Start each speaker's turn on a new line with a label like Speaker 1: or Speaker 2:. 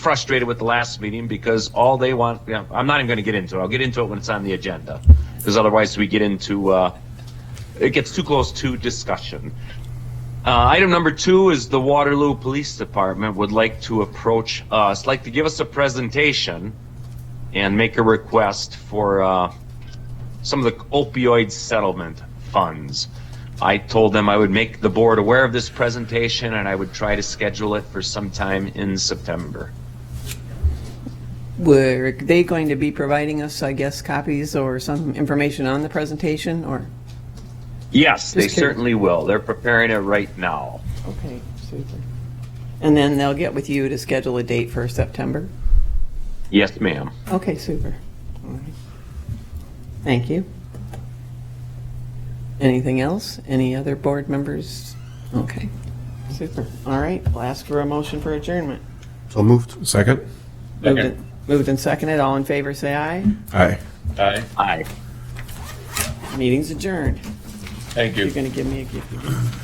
Speaker 1: frustrated with the last meeting because all they want, you know, I'm not even going to get into it. I'll get into it when it's on the agenda. Because otherwise we get into, uh, it gets too close to discussion. Uh, item number two is the Waterloo Police Department would like to approach us, like to give us a presentation and make a request for, uh, some of the opioid settlement funds. I told them I would make the board aware of this presentation and I would try to schedule it for sometime in September.
Speaker 2: Were they going to be providing us, I guess, copies or some information on the presentation, or?
Speaker 1: Yes, they
Speaker 2: Just kidding.
Speaker 1: certainly will. They're preparing it right now.
Speaker 2: Okay, super. And then they'll get with you to schedule a date for September?
Speaker 1: Yes, ma'am.
Speaker 2: Okay, super. All right. Thank you. Anything else? Any other board members? Okay, super. All right, we'll ask for a motion for adjournment.
Speaker 3: So moved.
Speaker 4: Second?
Speaker 2: Moved and- Moved and seconded, all in favor, say aye.
Speaker 4: Aye.
Speaker 5: Aye,
Speaker 1: Aye.
Speaker 2: Meeting's adjourned.
Speaker 5: thank you.
Speaker 2: You're going to give me a gift.